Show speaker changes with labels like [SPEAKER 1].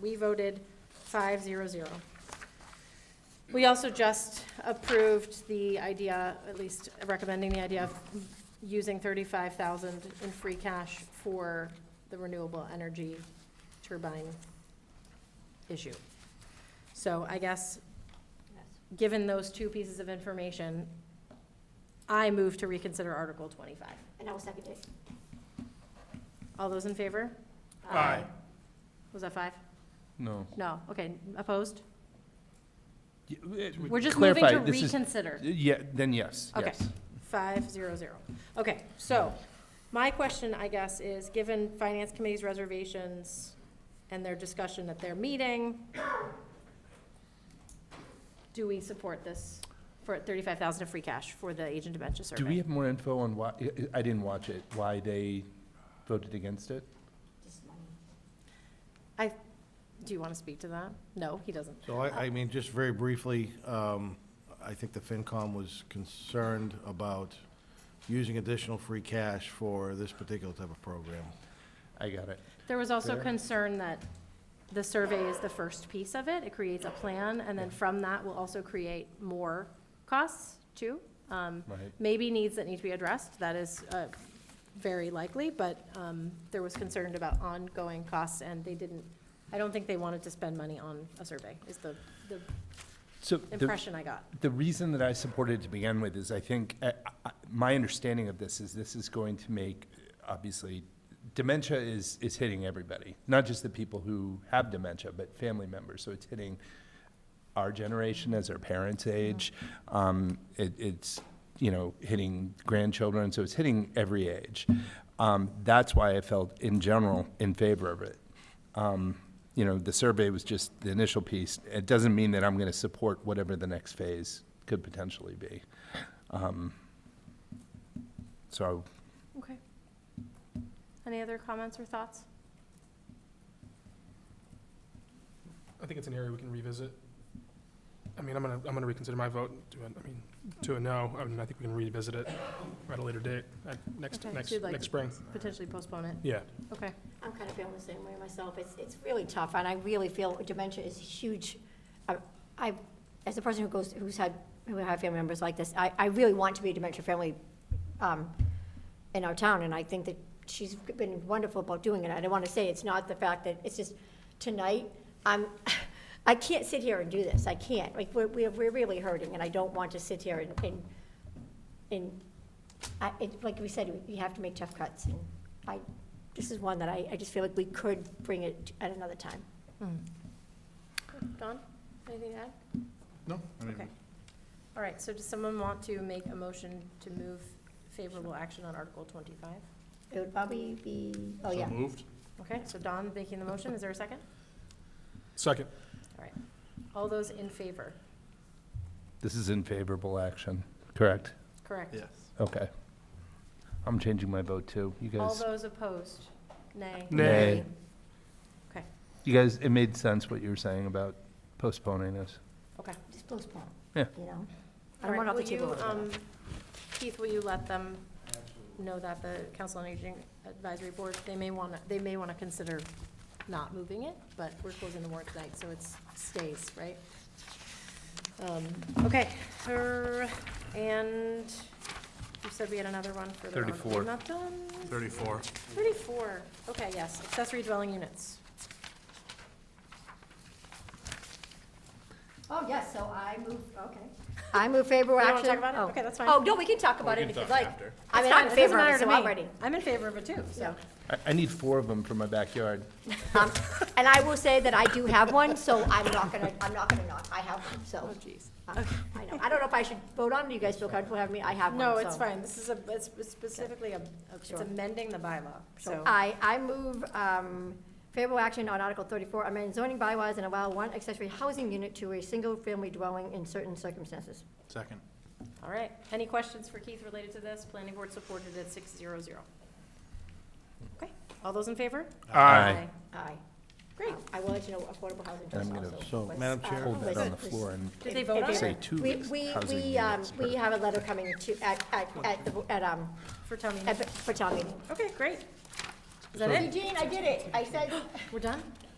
[SPEAKER 1] We voted five zero zero. We also just approved the idea, at least recommending the idea of using thirty-five thousand in free cash for the renewable energy turbine issue. So I guess, given those two pieces of information, I move to reconsider Article twenty-five.
[SPEAKER 2] And I will second it.
[SPEAKER 1] All those in favor?
[SPEAKER 3] Aye.
[SPEAKER 1] Was that five?
[SPEAKER 3] No.
[SPEAKER 1] No, okay, opposed?
[SPEAKER 3] We're eh,
[SPEAKER 1] We're just moving to reconsider.
[SPEAKER 3] Yeah, then yes,
[SPEAKER 1] Okay.
[SPEAKER 3] yes.
[SPEAKER 1] Five, zero, zero. Okay, so, my question, I guess, is, given Finance Committee's reservations and their discussion at their meeting, do we support this for thirty-five thousand of free cash for the agent dementia survey?
[SPEAKER 3] Do we have more info on why, I- I didn't watch it, why they voted against it?
[SPEAKER 2] Just money.
[SPEAKER 1] Do you want to speak to that? No, he doesn't.
[SPEAKER 4] So I, I mean, just very briefly, um, I think the FinCom was concerned about using additional free cash for this particular type of program.
[SPEAKER 3] I got it.
[SPEAKER 1] There was also
[SPEAKER 4] Fair.
[SPEAKER 1] concern that the survey is the first piece of it, it creates a plan, and then from that will also create more costs too. Um,
[SPEAKER 3] Right.
[SPEAKER 1] Maybe needs that need to be addressed, that is uh, very likely, but um, there was concern about ongoing costs, and they didn't, I don't think they wanted to spend money on a survey, is the the
[SPEAKER 3] So the,
[SPEAKER 1] impression I got.
[SPEAKER 3] the reason that I supported it to begin with is I think, I- I- my understanding of this is this is going to make, obviously, dementia is, is hitting everybody, not just the people who have dementia, but family members. So it's hitting our generation as our parents' age. Um, it, it's, you know, hitting grandchildren, so it's hitting every age. Um, that's why I felt in general in favor of it. Um, you know, the survey was just the initial piece. It doesn't mean that I'm going to support whatever the next phase could potentially be. Um, so,
[SPEAKER 1] Okay. Any other comments or thoughts?
[SPEAKER 5] I think it's an area we can revisit. I mean, I'm gonna, I'm gonna reconsider my vote to, a- I mean, to a no. I mean, I think we can revisit it at a later date, at next,
[SPEAKER 1] Okay,
[SPEAKER 5] next,
[SPEAKER 1] so you'd like
[SPEAKER 5] next spring.
[SPEAKER 1] Potentially postpone it,
[SPEAKER 5] Yeah.
[SPEAKER 1] okay.
[SPEAKER 2] I'm kind of feeling the same way myself. It's, it's really tough, and I really feel dementia is huge. I- I, as a person who goes, who's had, who have family members like this, I, I really want to be a dementia family um, in our town, and I think that she's been wonderful about doing it. I don't want to say it's not the fact that, it's just, tonight, I'm, I can't sit here and do this. I can't. Like, we're, we're we're really hurting, and I don't want to sit here and, and, and, I, it, like we said, we have to make tough cuts, and I, this is one that I, I just feel like we could bring it at another time.
[SPEAKER 1] Hmm. Don, anything to add?
[SPEAKER 4] No.
[SPEAKER 1] Okay. All right, so does someone want to make a motion to move favorable action on Article twenty-five?
[SPEAKER 2] It would probably be, oh, yeah.
[SPEAKER 5] moved.
[SPEAKER 1] Okay, so Don making the motion, is there a second?
[SPEAKER 5] Second.
[SPEAKER 1] All those in favor?
[SPEAKER 3] this is in favorable action, correct?
[SPEAKER 1] Correct.
[SPEAKER 3] Okay. I'm changing my vote too. You
[SPEAKER 1] All
[SPEAKER 3] guys,
[SPEAKER 1] those opposed? Nay.
[SPEAKER 3] Nay. Nay.
[SPEAKER 1] Okay,
[SPEAKER 3] you guys, it made sense what you were saying about postponing this.
[SPEAKER 1] okay.
[SPEAKER 2] Just postpone.
[SPEAKER 3] Yeah.
[SPEAKER 2] You know? I
[SPEAKER 1] All
[SPEAKER 2] don't
[SPEAKER 1] right,
[SPEAKER 2] want off
[SPEAKER 1] will
[SPEAKER 2] the
[SPEAKER 1] you,
[SPEAKER 2] table. altogether.
[SPEAKER 1] um, Keith, will you let them know that the Council on Aging Advisory Board, they may want to, they may want to consider not moving it, but we're closing the warrant tonight, so it stays, right? Um, Okay, er, and you said we had another one for the. wrong-
[SPEAKER 3] 34.
[SPEAKER 1] Not done.
[SPEAKER 5] Thirty-four.
[SPEAKER 1] Thirty-four, okay, yes, accessory dwelling units.
[SPEAKER 2] Oh, yes, so I move, okay. I move favorable
[SPEAKER 1] You
[SPEAKER 2] action.
[SPEAKER 1] wanna talk about it?
[SPEAKER 2] oh.
[SPEAKER 1] Okay, that's fine.
[SPEAKER 2] Oh, no, we can talk about it if you'd like. I mean,
[SPEAKER 1] It's
[SPEAKER 2] I'm in
[SPEAKER 1] fine, it doesn't
[SPEAKER 2] favor of
[SPEAKER 1] matter
[SPEAKER 2] it,
[SPEAKER 1] to
[SPEAKER 2] so
[SPEAKER 1] me.
[SPEAKER 2] I'm ready.
[SPEAKER 1] I'm in favor of it too, so.
[SPEAKER 3] I, I need four of them for my backyard.
[SPEAKER 2] Um, And I will say that I do have one, so I'm not gonna, I'm not gonna not, I have one, so.
[SPEAKER 1] Oh, jeez.
[SPEAKER 2] um, I know, I don't know if I should vote on it, Do you guys feel comfortable having me, I have one,
[SPEAKER 1] No, it's
[SPEAKER 2] so.
[SPEAKER 1] fine, this is a, it's specifically, a. it's
[SPEAKER 2] Sure.
[SPEAKER 1] amending the bylaw, so.
[SPEAKER 2] I, I move um, favorable action on Article 34, amend zoning bylaws and allow one accessory housing unit to a single-family dwelling in certain circumstances.
[SPEAKER 4] Second.
[SPEAKER 1] All right, any questions for Keith related to this? Planning board supported at six zero zero. Okay, all those in favor?
[SPEAKER 3] Aye.
[SPEAKER 2] Aye. Um,
[SPEAKER 1] Great.
[SPEAKER 2] I will let you know affordable housing
[SPEAKER 3] I'm
[SPEAKER 2] trust
[SPEAKER 3] gonna
[SPEAKER 2] also.
[SPEAKER 4] So,
[SPEAKER 2] what's,
[SPEAKER 4] Madam
[SPEAKER 2] uh,
[SPEAKER 4] Chair?
[SPEAKER 3] Hold that
[SPEAKER 2] was-
[SPEAKER 3] on the
[SPEAKER 2] was-
[SPEAKER 3] floor and
[SPEAKER 1] Did they vote on
[SPEAKER 3] say
[SPEAKER 1] it
[SPEAKER 3] two
[SPEAKER 2] We, we,
[SPEAKER 3] housing
[SPEAKER 2] we, um,
[SPEAKER 3] units per-
[SPEAKER 2] we have a letter coming to, at, at, at, the- at, um,
[SPEAKER 1] for town meeting?
[SPEAKER 2] at- for town meeting.
[SPEAKER 1] Okay, great. Is that it?
[SPEAKER 2] Eugene, I did it, I said,
[SPEAKER 1] We're done?